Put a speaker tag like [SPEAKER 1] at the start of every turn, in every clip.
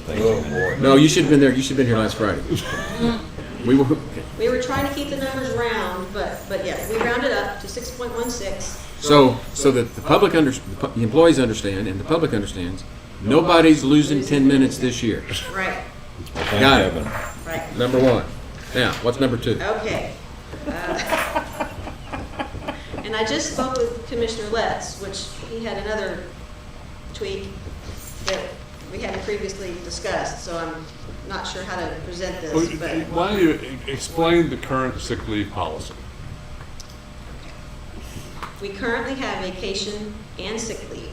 [SPEAKER 1] things. Oh, boy.
[SPEAKER 2] No, you should have been there. You should have been here last Friday. We were,
[SPEAKER 3] We were trying to keep the numbers round, but, but yes, we rounded up to six point one six.
[SPEAKER 2] so, so that the public under, the pu- the employees understand and the public understands, nobody's losing ten minutes this year.
[SPEAKER 3] Right,
[SPEAKER 1] Thank
[SPEAKER 2] Got it.
[SPEAKER 1] heaven.
[SPEAKER 3] right,
[SPEAKER 2] Number one. Now, what's number two?
[SPEAKER 3] okay. Uh, And I just spoke with Commissioner Letts, which he had another tweak that we hadn't previously discussed, so I'm not sure how to present
[SPEAKER 4] Well,
[SPEAKER 3] this, but.
[SPEAKER 4] Why don't you e- explain the current sick leave policy?
[SPEAKER 3] We currently have vacation and sick leave.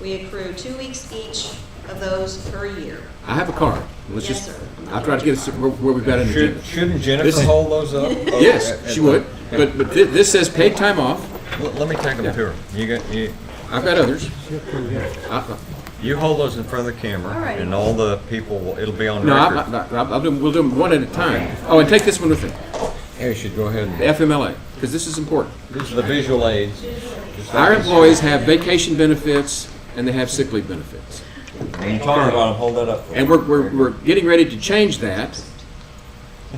[SPEAKER 3] We accrue two weeks each of those per year.
[SPEAKER 2] I have a card. Let's
[SPEAKER 3] Yes,
[SPEAKER 2] just,
[SPEAKER 3] sir.
[SPEAKER 2] I'll try to get us where where we've got an agenda.
[SPEAKER 1] Should, shouldn't
[SPEAKER 2] This
[SPEAKER 1] Jennifer
[SPEAKER 2] is-
[SPEAKER 1] hold those up? Oh, at-
[SPEAKER 2] Yes,
[SPEAKER 1] at
[SPEAKER 2] she
[SPEAKER 1] the-
[SPEAKER 2] would, but, but thi- this says paid time off.
[SPEAKER 1] Let- Let me take them to her. You got, you,
[SPEAKER 2] I've got others. I-
[SPEAKER 1] you hold those in front of the camera
[SPEAKER 3] All right.
[SPEAKER 1] and all the people, will- it'll be on
[SPEAKER 2] No, I,
[SPEAKER 1] record.
[SPEAKER 2] I, I'll do, we'll do them one at a time. Oh, and take this one with me,
[SPEAKER 1] Yeah, you should go ahead
[SPEAKER 2] the
[SPEAKER 1] and,
[SPEAKER 2] FMLA, because this is important.
[SPEAKER 1] these are the visual aids. Just
[SPEAKER 2] Our
[SPEAKER 1] like this.
[SPEAKER 2] employees have vacation benefits and they have sick leave benefits.
[SPEAKER 1] When you talk about them, hold that up. for
[SPEAKER 2] And
[SPEAKER 1] me.
[SPEAKER 2] we're, we're, we're getting ready to change that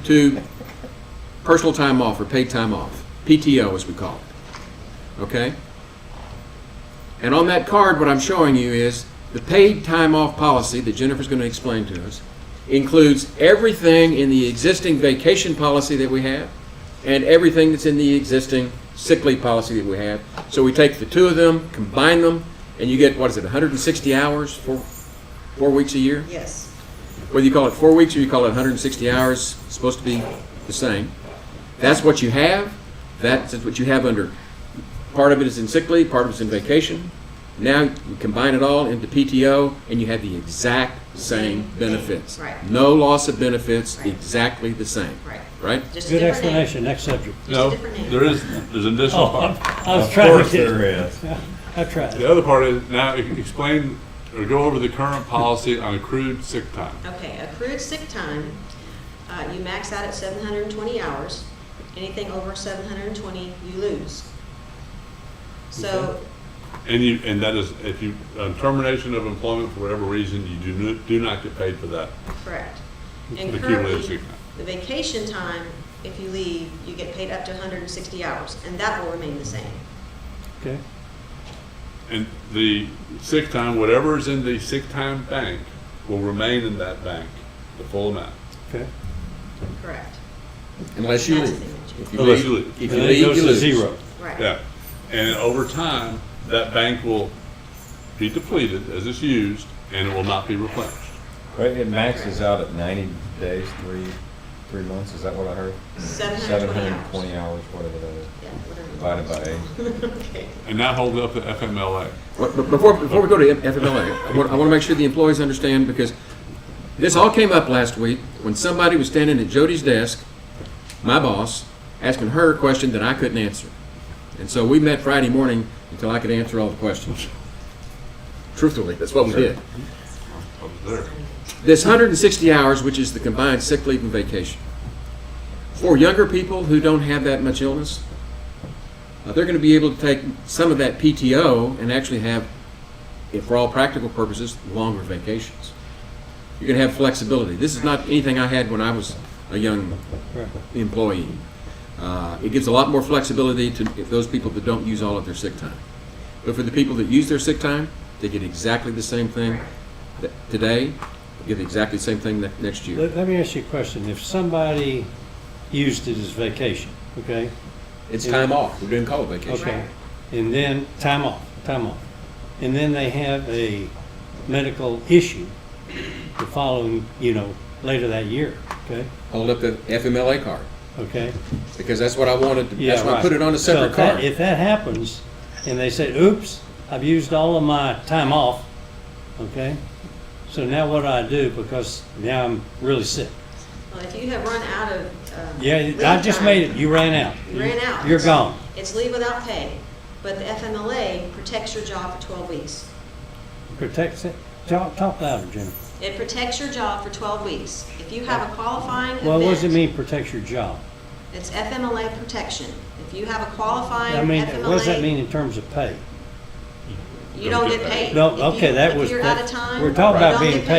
[SPEAKER 2] to personal time off or paid time off, PTO as we call it. Okay? And on that card, what I'm showing you is the paid time off policy that Jennifer's going to explain to us includes everything in the existing vacation policy that we have and everything that's in the existing sick leave policy that we have. So we take the two of them, combine them, and you get, what is it, 160 hours for four weeks a year?
[SPEAKER 3] Yes.
[SPEAKER 2] whether you call it four weeks or you call it 160 hours, it's supposed to be the same. That's what you have. That's what you have under. Part of it is in sick leave, part of it's in vacation. Now you combine it all into PTO, and you have the exact same benefits.
[SPEAKER 3] Right.
[SPEAKER 2] No loss of benefits,
[SPEAKER 3] Right.
[SPEAKER 2] exactly the same.
[SPEAKER 3] Right.
[SPEAKER 2] Right?
[SPEAKER 3] Just a
[SPEAKER 5] Good
[SPEAKER 3] different name.
[SPEAKER 5] explanation, next subject.
[SPEAKER 3] Just a
[SPEAKER 4] No,
[SPEAKER 3] different name.
[SPEAKER 4] there is, there's an additional
[SPEAKER 5] Oh,
[SPEAKER 4] part.
[SPEAKER 5] I was
[SPEAKER 1] Of
[SPEAKER 5] trying
[SPEAKER 1] course
[SPEAKER 5] to get,
[SPEAKER 1] there is.
[SPEAKER 5] I tried.
[SPEAKER 4] The other part is, now e- explain, or go over the current policy on accrued sick time.
[SPEAKER 3] Okay, accrued sick time, uh, you max out at seven hundred and twenty hours. Anything over seven hundred and twenty, you lose. So,
[SPEAKER 4] And you, and that is, if you, on termination of employment for whatever reason, you do not, do not get paid for that.
[SPEAKER 3] correct. And
[SPEAKER 4] The cumulative
[SPEAKER 3] currently,
[SPEAKER 4] sick time.
[SPEAKER 3] the vacation time, if you leave, you get paid up to hundred and sixty hours, and that will remain the same.
[SPEAKER 5] Okay,
[SPEAKER 4] And the sick time, whatever is in the sick time bank, will remain in that bank, the full amount.
[SPEAKER 5] okay.
[SPEAKER 3] Correct,
[SPEAKER 2] Unless you
[SPEAKER 3] That's
[SPEAKER 2] leave.
[SPEAKER 3] the-
[SPEAKER 2] If
[SPEAKER 4] Unless you
[SPEAKER 2] If
[SPEAKER 4] leave.
[SPEAKER 5] And
[SPEAKER 2] you
[SPEAKER 5] then it
[SPEAKER 2] leave,
[SPEAKER 5] goes
[SPEAKER 2] you
[SPEAKER 5] to
[SPEAKER 2] lose.
[SPEAKER 5] zero.
[SPEAKER 3] right.
[SPEAKER 4] Yeah, and over time, that bank will be depleted as it's used, and it will not be replenished.
[SPEAKER 1] Right, it maxes out at 90 days, three, three months, is that what I heard?
[SPEAKER 3] 720
[SPEAKER 1] 720 hours, whatever that is,
[SPEAKER 3] Yeah, whatever.
[SPEAKER 1] divided by eight.
[SPEAKER 3] Okay.
[SPEAKER 4] And that holds up the FMLA.
[SPEAKER 2] Well, but Before, before we go to FMLA, I want, I want to make sure the employees understand, because this all came up last week when somebody was standing at Jody's desk, my boss, asking her a question that I couldn't answer. And so we met Friday morning until I could answer all the questions. Truthfully, that's what we did.
[SPEAKER 4] I was there.
[SPEAKER 2] This 160 hours, which is the combined sick leave and vacation, for younger people who don't have that much illness, uh, they're going to be able to take some of that PTO and actually have, if for all practical purposes, longer vacations. You're going to have flexibility. This is not anything I had when I was a young
[SPEAKER 5] Right.
[SPEAKER 2] employee. Uh, It gives a lot more flexibility to those people that don't use all of their sick time. But for the people that use their sick time, they get exactly the same thing that- today, they get exactly the same thing ne- next year.
[SPEAKER 5] Let, let me ask you a question. If somebody used it as vacation, okay,
[SPEAKER 2] It's
[SPEAKER 5] time
[SPEAKER 2] off, we didn't call it
[SPEAKER 5] okay, and then time off, time off, and then they have a medical issue the following, you know, later that year, okay,
[SPEAKER 2] Hold up the FMLA card,
[SPEAKER 5] okay?
[SPEAKER 2] because that's what I wanted, to- that's why I
[SPEAKER 5] right.
[SPEAKER 2] put it on a
[SPEAKER 5] So
[SPEAKER 2] separate
[SPEAKER 5] if that-
[SPEAKER 2] card.
[SPEAKER 5] If that happens, and they say, oops, I've used all of my time off, okay? So now what do I do, because now I'm really sick?
[SPEAKER 3] Well, if you have run out of. um,
[SPEAKER 5] Yeah,
[SPEAKER 3] leave
[SPEAKER 5] I just
[SPEAKER 3] time,
[SPEAKER 5] made it, you ran out.
[SPEAKER 3] You ran out.
[SPEAKER 5] You're gone.
[SPEAKER 3] It's leave without pay, but the FMLA protects your job for 12 weeks.
[SPEAKER 5] Protects it, talk, talk louder, Jennifer.
[SPEAKER 3] It protects your job for 12 weeks. If you have a qualifying event.
[SPEAKER 5] Well, what does it mean, protects your job?
[SPEAKER 3] It's FMLA protection. If you have a qualifying
[SPEAKER 5] I mean, what does that mean
[SPEAKER 3] FMLA,
[SPEAKER 5] in terms of pay?
[SPEAKER 3] you don't get paid.
[SPEAKER 5] No,
[SPEAKER 3] If you-
[SPEAKER 5] okay, that was.
[SPEAKER 3] If you're out of time.
[SPEAKER 5] We're talking
[SPEAKER 3] you
[SPEAKER 5] about
[SPEAKER 3] don't
[SPEAKER 5] being
[SPEAKER 3] get
[SPEAKER 5] paid.